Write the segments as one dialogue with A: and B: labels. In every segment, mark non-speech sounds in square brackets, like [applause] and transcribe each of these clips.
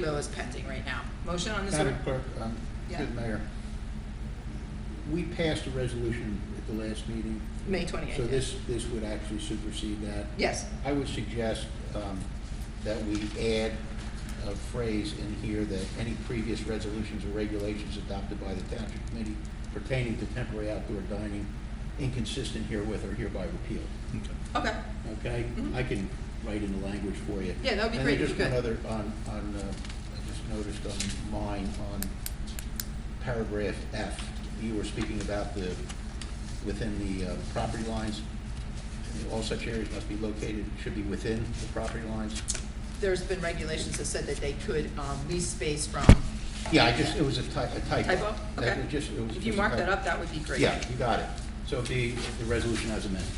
A: bill is pending right now. Motion on this.
B: Madam Clerk, um,
A: Yeah.
B: good Mayor, we passed a resolution at the last meeting,
A: May twenty-eighth.
B: so this, this would actually supersede that.
A: Yes,
B: I would suggest um, that we add a phrase in here that any previous resolutions or regulations adopted by the Township Committee pertaining to temporary outdoor dining inconsistent herewith are hereby repealed,
A: okay,
B: okay?
A: Mhm.
B: I can write in the language for you.
A: Yeah, that would be great if you
B: And
A: could.
B: then just one other, on, on, uh, I just noticed on mine, on paragraph F, you were speaking about the, within the uh, property lines, all such areas must be located, should be within the property lines.
A: there's been regulations that said that they could um, lease space from.
B: Yeah, I just, it was a ty- a typo.
A: Typo,
B: That
A: okay.
B: was just- it was
A: If
B: just
A: you
B: a
A: mark
B: typo.
A: that up, that would be great.
B: Yeah, you got it. So the, the resolution as amended.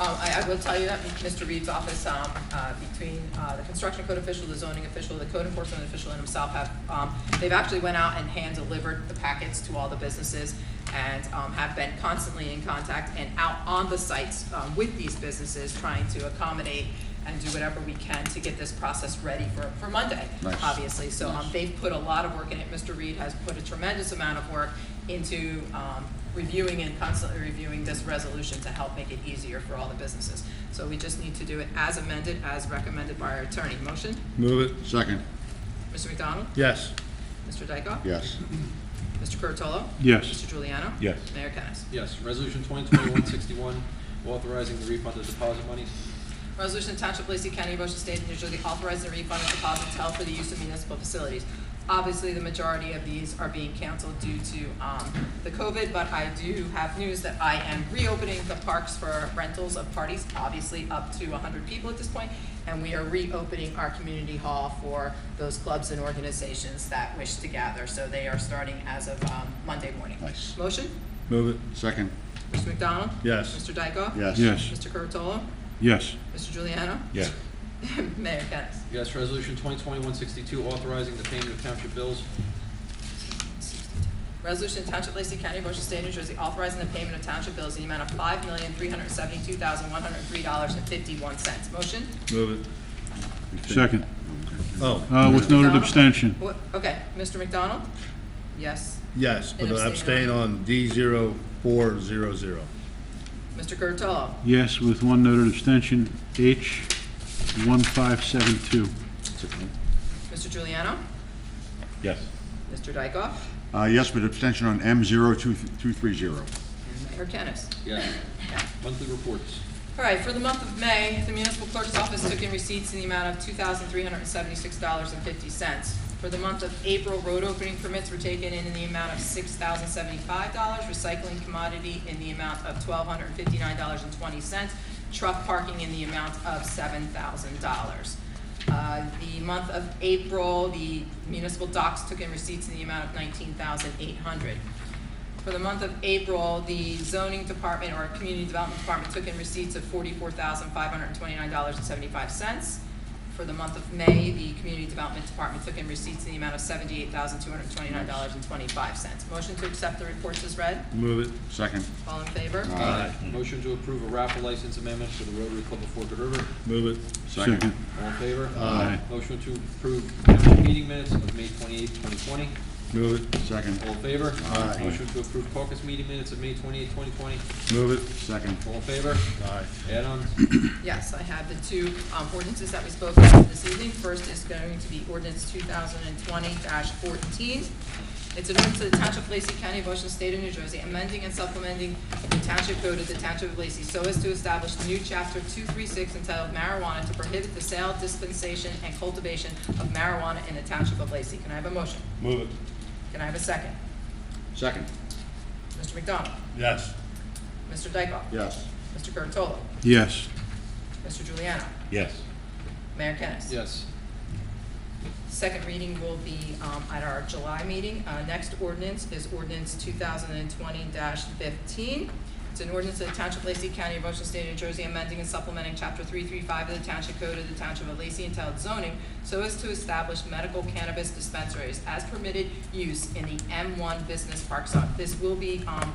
A: Um, I, I will tell you that Mr. Reed's office, um, uh, between, uh, the construction code official, the zoning official, the code enforcement official and himself have, um, they've actually went out and hand delivered the packets to all the businesses and, um, have been constantly in contact and out on the sites, um, with these businesses, trying to accommodate and do whatever we can to get this process ready for, for Monday,
B: Nice.
A: obviously. So, um,
B: Nice.
A: they've put a lot of work in it. Mr. Reed has put a tremendous amount of work into um, reviewing and constantly reviewing this resolution to help make it easier for all the businesses. So we just need to do it as amended, as recommended by our attorney. Motion,
C: Move it. Second.
A: Mr. McDonald?
C: Yes.
A: Mr. Dykoff?
C: Yes.
A: Mr. Curatolo?
C: Yes.
A: Mr. Juliano?
C: Yes.
A: Mayor Kennas.
D: Yes, resolution 2021-61, authorizing the refund of deposit monies.
A: Resolution of Township of Lacey County, Ocean State, New Jersey, authorizing the refund of deposits held for the use of municipal facilities. Obviously, the majority of these are being canceled due to um, the COVID, but I do have news that I am reopening the parks for rentals of parties, obviously up to 100 people at this point, and we are reopening our community hall for those clubs and organizations that wish to gather. So they are starting as of um, Monday morning.
C: Nice.
A: Motion,
C: Move it. Second.
A: Mr. McDonald?
C: Yes.
A: Mr. Dykoff?
C: Yes.
E: Yes,
A: Mr. Curatolo?
E: yes,
A: Mr. Juliano?
C: Yes.
A: [clears throat] Mayor Kennas.
D: Yes, resolution 2021-62, authorizing the payment of township bills.
A: Resolution to Township of Lacey County, Ocean State, New Jersey, authorizing the payment of township bills in the amount of five million, three hundred seventy-two thousand, one hundred three dollars and fifty-one cents. Motion?
C: Move it.
E: second,
C: Oh.
E: uh, with noted
A: McDonald?
E: abstention.
A: Wha- Okay, Mr. McDonald? Yes.
C: Yes, but
A: And abstain
C: abstain
A: on-
C: on D zero four zero zero.
A: Mr. Curatolo?
E: Yes, with one noted abstention, H one five seven two.
A: Mr. Giuliano.
C: Yes.
A: Mr. Dykoff?
C: Uh, yes, but abstention on M zero two, two three zero.
A: And Mayor Kennas.
D: Yes. Monthly reports.
A: All right, for the month of May, the municipal clerk's office took in receipts in the amount of two thousand three hundred and seventy-six dollars and fifty cents. For the month of April, road opening permits were taken in in the amount of six thousand seventy-five dollars, recycling commodity in the amount of twelve hundred and fifty-nine dollars and twenty cents, truck parking in the amount of seven thousand dollars. Uh, The month of April, the municipal docs took in receipts in the amount of nineteen thousand eight hundred. For the month of April, the zoning department or community development department took in receipts of forty-four thousand five hundred and twenty-nine dollars and seventy-five cents. For the month of May, the community development department took in receipts in the amount of seventy-eight thousand two hundred and twenty-nine dollars and twenty-five cents. Motion to accept the reports is read.
C: Move it. Second.
A: All in favor?
D: Motion to approve a raffle license amendment for the Rotary Club of Forked River.
C: Move it.
E: Second,
D: All in favor?
E: Aye.
D: Motion to approve township meeting minutes of May 28, 2020.
C: Move it. Second.
D: All in favor?
C: Aye.
D: Motion to approve caucus meeting minutes of May 28, 2020.
C: Move it. Second.
D: All in favor?
C: Aye.
D: Add-ons?
A: Yes, I have the two um, ordinances that we spoke about this evening. First is going to be ordinance two thousand and twenty fourteen. It's an ordinance to the Township of Lacey County, of Ocean State of New Jersey, amending and supplementing the Township Code of the Township of Lacey so as to establish a new chapter two three six entitled marijuana to prohibit the sale, dispensation, and cultivation of marijuana in the Township of Lacey. Can I have a motion?
C: Move it.
A: Can I have a second?
C: Second.
A: Mr. McDonald?
C: Yes.
A: Mr. Dykoff?
C: Yes.
A: Mr. Curatolo?
E: yes,
A: Mr. Juliano?
C: Yes.
A: Mayor Kennas?
D: Yes.
A: Second reading will be um, at our July meeting. Uh, Next ordinance is ordinance 2020-15. It's an ordinance of the Township of Lacey County, Ocean State, New Jersey, amending and supplementing Chapter 335 of the Township Code of the Township of Lacey entitled zoning so as to establish medical cannabis dispensaries as permitted use in the M1 Business Park Zone. This will be um,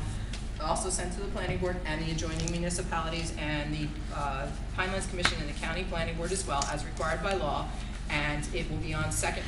A: also sent to the planning board and the adjoining municipalities and the uh, Pinelands Commission and the county planning board as well as required by law and it will be on second